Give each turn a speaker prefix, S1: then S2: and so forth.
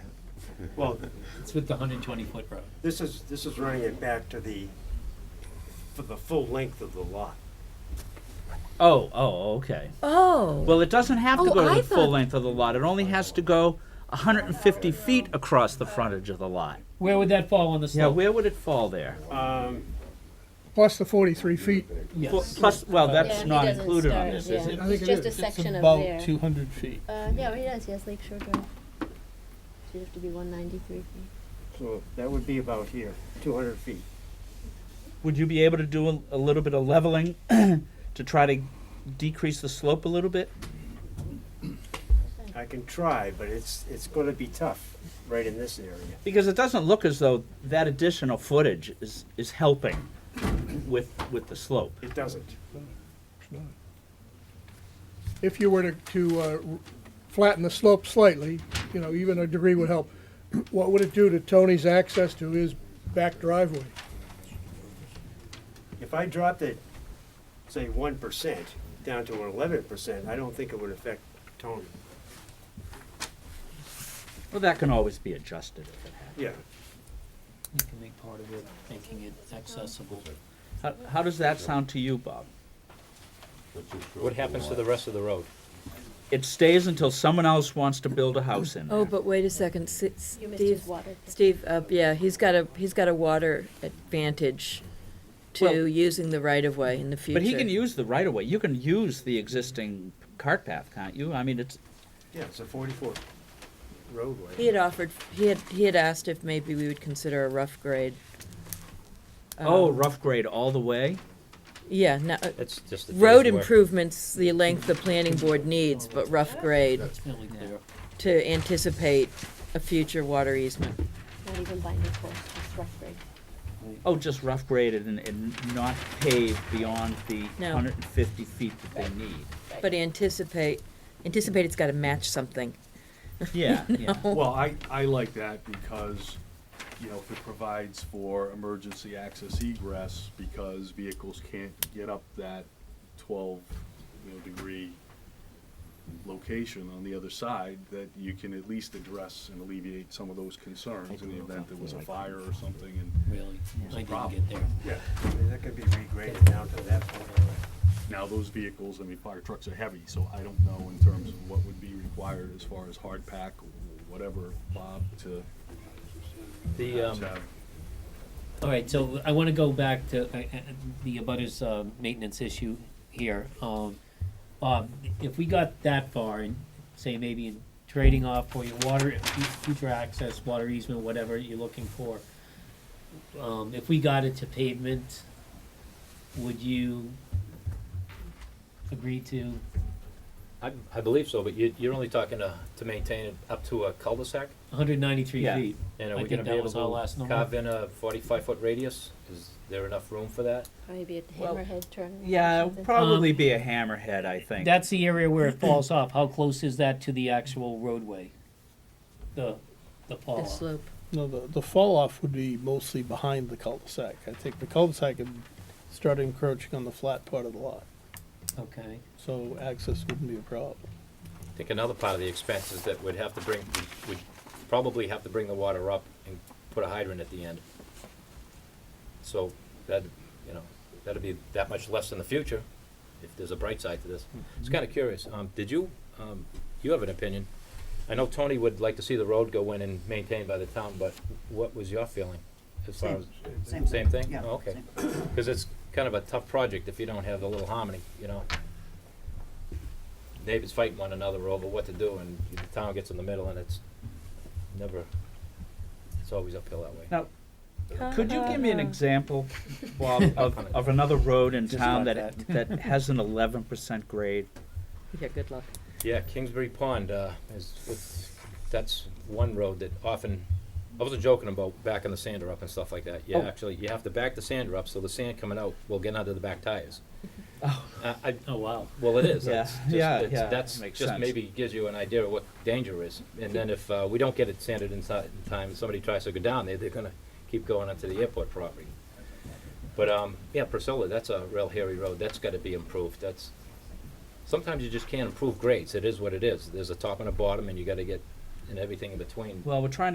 S1: Well,
S2: It's with the hundred twenty foot road.
S1: this is, this is running it back to the, for the full length of the lot.
S3: Oh, oh, okay.
S4: Oh.
S3: Well, it doesn't have to
S4: Oh,
S3: go to
S4: I
S3: the full
S4: thought-
S3: length of the lot. It only has to go 150 feet across the frontage of the lot.
S2: Where would that fall on the
S3: Yeah,
S2: slope?
S3: where would it fall there?
S1: Um,
S5: plus the 43 feet.
S3: Well,
S2: Yes.
S3: Plus, well,
S2: Yeah,
S3: that's
S2: he
S3: not included on this, is it?
S5: I
S6: It's
S5: think it
S6: just a
S5: is.
S6: section of
S7: About
S6: there.
S7: two hundred feet.
S6: Uh, yeah, he does, he has Lake Shore Drive. Should have to be one ninety-three feet.
S1: so that would be about here, two hundred feet.
S3: Would you be able to do a- a little bit of leveling to try to decrease the slope a little bit?
S1: I can try, but it's, it's gonna be tough right in this area.
S3: Because it doesn't look as though that additional footage is, is helping with, with the slope.
S1: It doesn't.
S5: If you were to, to uh, r- flatten the slope slightly, you know, even a degree would help. What would it do to Tony's access to his back driveway?
S1: If I dropped it, say, one percent down to eleven percent, I don't think it would affect Tony.
S3: Well, that can always be adjusted if it happens.
S1: Yeah,
S2: You can make part of it, making it accessible.
S3: How, how does that sound to you, Bob?
S8: What happens to the rest of the road?
S3: It stays until someone else wants to build a house in
S4: Oh,
S3: there.
S4: but wait a second, S-
S6: You missed his
S4: Steve,
S6: water.
S4: Steve, uh, yeah, he's got a, he's got a water advantage
S3: Well-
S4: to using the right of way in the future.
S3: But he can use the right of way. You can use the existing cart path, can't you? I mean, it's,
S1: yeah, it's a forty-foot roadway.
S4: He had offered, he had, he had asked if maybe we would consider a rough grade.
S3: oh,
S4: Um,
S3: rough grade all the way?
S4: Yeah, no, uh,
S8: That's just the.
S4: road
S8: finished work.
S4: improvements, the length the planning board needs, but rough grade
S2: It's fairly clear.
S4: to anticipate a future water easement.
S6: Not even binding course, just rough grade.
S3: Oh, just rough graded and, and not paved beyond the
S4: No.
S3: hundred and fifty feet that they need.
S4: But anticipate, anticipate it's gotta match something.
S3: Yeah, yeah.
S7: Well, I, I like that because, you know, if it provides for emergency access egress, because vehicles can't get up that twelve, you know, degree location on the other side, that you can at least address and alleviate some of those concerns in the event there was a fire or something and
S2: Really, I didn't
S7: problem.
S2: get there.
S1: Yeah, I mean, that could be regraded down to that point.
S7: Now, those vehicles, I mean, fire trucks are heavy, so I don't know in terms of what would be required as far as hard pack, whatever, Bob, to
S8: The,
S7: perhaps
S8: um,
S7: have.
S2: All right, so I want to go back to uh, uh, the abutters um, maintenance issue here. Um, Bob, if we got that far and say maybe in trading off for your water, future access, water easement, whatever you're looking for, um, if we got it to pavement, would you agree to,
S8: I, I believe so, but you, you're only talking to, to maintain it up to a cul-de-sac?
S2: hundred ninety-three
S3: Yeah.
S2: feet?
S8: And are
S2: I think
S8: we gonna be
S2: that
S8: able
S2: was our last
S8: to
S2: number.
S8: carve in a forty-five foot radius? Is there enough room for that?
S6: Probably be a
S3: Well,
S6: hammerhead turn. or
S3: Yeah,
S6: something.
S3: probably be a hammerhead, I think.
S2: That's the area where it falls off. How close is that to the actual roadway? The, the fall
S3: Oh.
S4: The
S2: off?
S4: slope.
S9: No, the, the fall off would be mostly behind the cul-de-sac. I think the cul-de-sac had started encroaching on the flat part of the lot,
S2: Okay.
S9: so access wouldn't be a problem.
S8: I think another part of the expense is that we'd have to bring, we'd probably have to bring the water up and put a hydrant at the end. So that, you know, that'd be that much less in the future, if there's a bright side to this. It's kinda curious, um, did you, um, you have an opinion? I know Tony would like to see the road go in and maintained by the town, but what was your feeling? as far as
S10: Same.
S8: Same thing?
S10: Yeah,
S8: Oh, Okay, cause it's kind of a tough project if you don't have the little harmony, you know? neighbors fighting one another over what to do, and the town gets in the middle, and it's never, it's always uphill that way.
S3: Now, could you give me an
S4: Uh-huh.
S3: example, Bob, of, of another road in town that, that has an eleven percent grade?
S4: Yeah, good luck.
S8: Yeah, Kingsbury Pond, uh, is, it's- that's one road that often, I wasn't joking about backing the sander up and stuff like that. Yeah,
S3: Oh.
S8: actually, you have to back the sander up, so the sand coming out will get under the back tires.
S3: Oh.
S8: I, I,
S2: Oh, wow.
S8: Well, it is.
S3: Yeah,
S8: That's just-
S3: yeah,
S8: it's-
S3: yeah,
S8: That's
S3: makes
S8: just
S3: sense.
S8: maybe gives you an idea of what danger is. And then if uh, we don't get it sanded inside in time, and somebody tries to go down there, they're gonna keep going onto the airport property. But, um, yeah, Priscilla, that's a real hairy road. That's gotta be improved. That's, sometimes you just can't improve grades. It is what it is. There's a top and a bottom and you gotta get, and everything in between.
S3: Well, we're trying